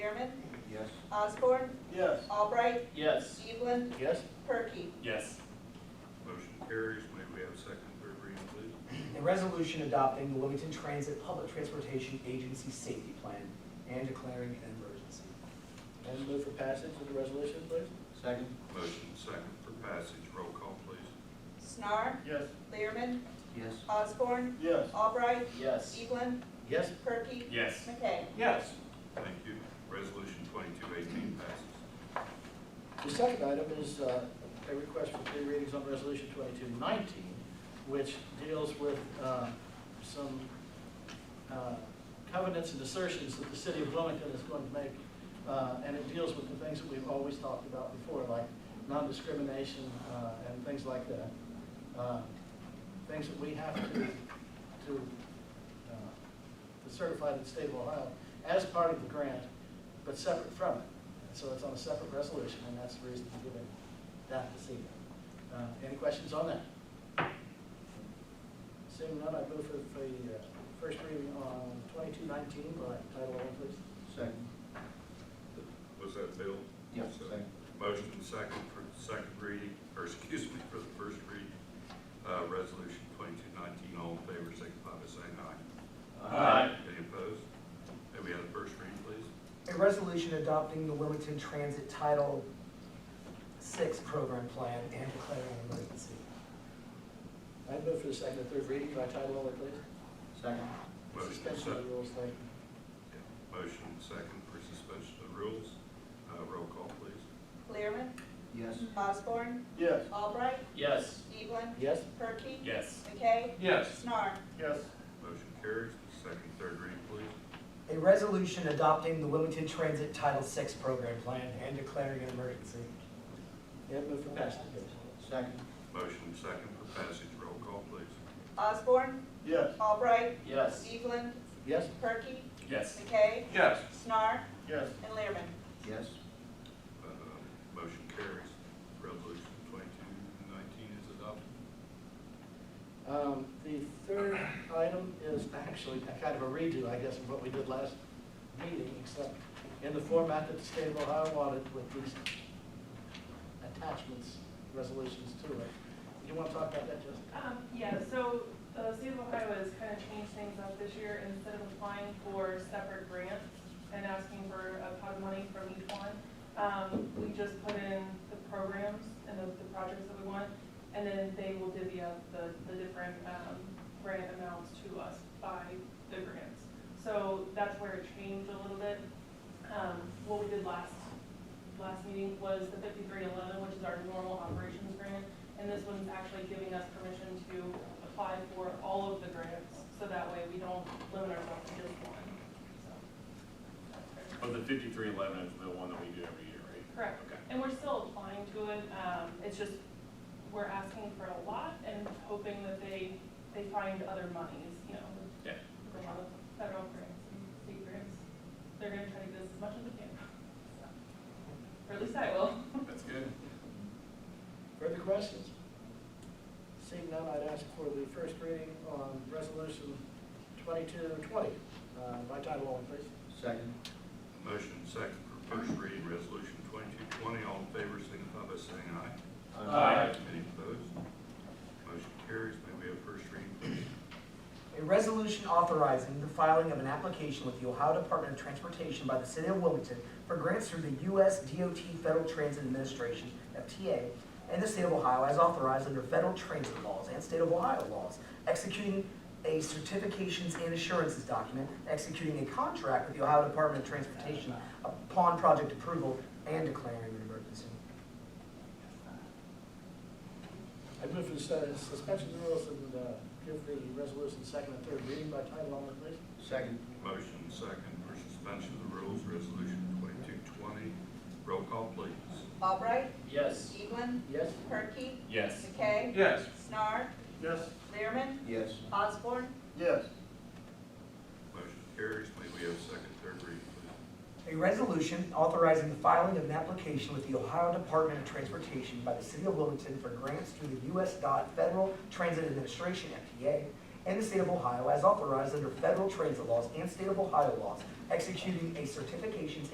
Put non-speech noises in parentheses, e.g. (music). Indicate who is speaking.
Speaker 1: Mormon,
Speaker 2: Yes.
Speaker 1: Osborne,
Speaker 3: Yes.
Speaker 1: Albright,
Speaker 3: Yes.
Speaker 1: Evelyn,
Speaker 3: Yes.
Speaker 1: Perky.
Speaker 4: Yes.
Speaker 2: Motion carries. May we have second, third reading, please?
Speaker 5: A resolution adopting the Wilmington Transit Public Transportation Agency Safety Plan and declaring an emergency.
Speaker 3: And move for passage of the resolution, please?
Speaker 6: Second?
Speaker 2: Motion second for passage. Roll call, please.
Speaker 1: Snar,
Speaker 3: Yes.
Speaker 1: Learman,
Speaker 6: Yes.
Speaker 1: Osborne,
Speaker 3: Yes.
Speaker 1: Albright,
Speaker 3: Yes.
Speaker 1: Evelyn,
Speaker 3: Yes.
Speaker 1: Perky,
Speaker 4: Yes.
Speaker 1: McKay.
Speaker 4: Yes.
Speaker 2: Thank you. Resolution twenty-two eighteen passes.
Speaker 3: The second item is uh, a request for three readings on Resolution 2219, which deals with uh, some uh, covenants and assertions that the city of Wilmington is going to make, uh, and it deals with the things that we've always talked about before, like non-discrimination uh, and things like that. Uh, Things that we have to, to uh, to certify to the state of Ohio as part of the grant, but separate from it. And So it's on a separate resolution, and that's the reason for giving that this evening. Uh, Any questions on that? Seeing none, I move for the uh, first reading on twenty-two nineteen by title only, please.
Speaker 6: Second?
Speaker 2: Was that Bill?
Speaker 6: Yes,
Speaker 2: So,
Speaker 6: second.
Speaker 2: Motion second for second reading, or (laughs) excuse me, for the first reading. Uh, resolution twenty-two nineteen. All in favor, signify by saying aye.
Speaker 4: Aye.
Speaker 2: Any opposed? May we have the first reading, please?
Speaker 5: A resolution adopting the Wilmington Transit Title Six Program Plan and declaring an emergency.
Speaker 3: I move for the second and third reading by title only, please.
Speaker 6: Second?
Speaker 2: Motion
Speaker 3: Suspension of
Speaker 2: second.
Speaker 3: the rules, thank you.
Speaker 2: Motion second for suspension of the rules. Uh, roll call, please.
Speaker 1: Learman,
Speaker 6: Yes.
Speaker 1: Osborne,
Speaker 3: Yes.
Speaker 1: Albright,
Speaker 4: Yes.
Speaker 1: Evelyn,
Speaker 3: Yes?
Speaker 1: Perky,
Speaker 4: Yes.
Speaker 1: McKay,
Speaker 4: Yes.
Speaker 1: Snar.
Speaker 3: Yes.
Speaker 2: Motion carries. Second, third reading, please.
Speaker 5: A resolution adopting the Wilmington Transit Title Six Program Plan and declaring an emergency.
Speaker 3: Yeah, move for passage, please.
Speaker 6: Second?
Speaker 2: Motion second for passage. Roll call, please.
Speaker 1: Osborne,
Speaker 3: Yes.
Speaker 1: Albright,
Speaker 4: Yes.
Speaker 1: Evelyn,
Speaker 3: Yes?
Speaker 1: Perky,
Speaker 4: Yes.
Speaker 1: McKay,
Speaker 4: Yes.
Speaker 1: Snar,
Speaker 3: Yes.
Speaker 1: and Learman.
Speaker 6: Yes.
Speaker 2: Uh, Motion carries. Resolution twenty-two nineteen is adopted.
Speaker 3: Um, The third item is actually a kind of a redo, I guess, of what we did last meeting, except in the format that the state of Ohio wanted with these attachments, resolutions to it. You want to talk about that, Jessica?
Speaker 7: Um, yeah, so the state of Ohio has kind of changed things up this year. Instead of applying for separate grants and asking for a pot of money from each one, um, we just put in the programs and the, the projects that we want, and then they will divvy up the, the different, um, grant amounts to us by the grants. So that's where it changed a little bit. Um, what we did last, last meeting was the fifty-three eleven, which is our normal operations grant. And this one's actually giving us permission to apply for all of the grants, so that way we don't limit ourselves to just one, so. that's great.
Speaker 4: Oh, the fifty-three eleven is the one that we do every year, right?
Speaker 7: Correct,
Speaker 4: Okay.
Speaker 7: and we're still applying to it, um, it's just, we're asking for a lot and hoping that they, they find other monies, you know.
Speaker 4: Yeah.
Speaker 7: From other federal grants and state grants, they're gonna try to get us as much as they can, so. Or at least I will.
Speaker 4: That's good.
Speaker 3: Further questions? Seeing none, I'd ask for the first reading on Resolution 2220 uh, by title only, please.
Speaker 6: Second?
Speaker 2: Motion second for first reading, resolution twenty-two twenty. All in favor, signify by saying aye.
Speaker 4: Aye.
Speaker 2: Any opposed? Motion carries. May we have first reading, please?
Speaker 5: A resolution authorizing the filing of an application with the Ohio Department of Transportation by the City of Wilmington for grants through the U.S. DOT Federal Transit Administration, FTA, and the State of Ohio as authorized under federal transit laws and State of Ohio laws, executing a certifications and assurances document, executing a contract with the Ohio Department of Transportation upon project approval, and declaring an emergency.
Speaker 3: I move for the sus- suspension of the rules and uh, give the resolution second and third reading by title only, please.
Speaker 6: Second?
Speaker 2: Motion second for suspension of the rules, resolution twenty-two twenty. Roll call, please.
Speaker 1: Albright,
Speaker 3: Yes.
Speaker 1: Evelyn,
Speaker 3: Yes?
Speaker 1: Perky,
Speaker 4: Yes.
Speaker 1: McKay,
Speaker 4: Yes.
Speaker 1: Snar,
Speaker 3: Yes.
Speaker 1: Learman,
Speaker 6: Yes.
Speaker 1: Osborne,
Speaker 3: Yes.
Speaker 2: Motion carries. May we have second, third reading, please?
Speaker 5: A resolution authorizing the filing of an application with the Ohio Department of Transportation by the City of Wilmington for grants through the U.S. DOT Federal Transit Administration, FTA, and the State of Ohio as authorized under federal transit laws and State of Ohio laws, executing a certifications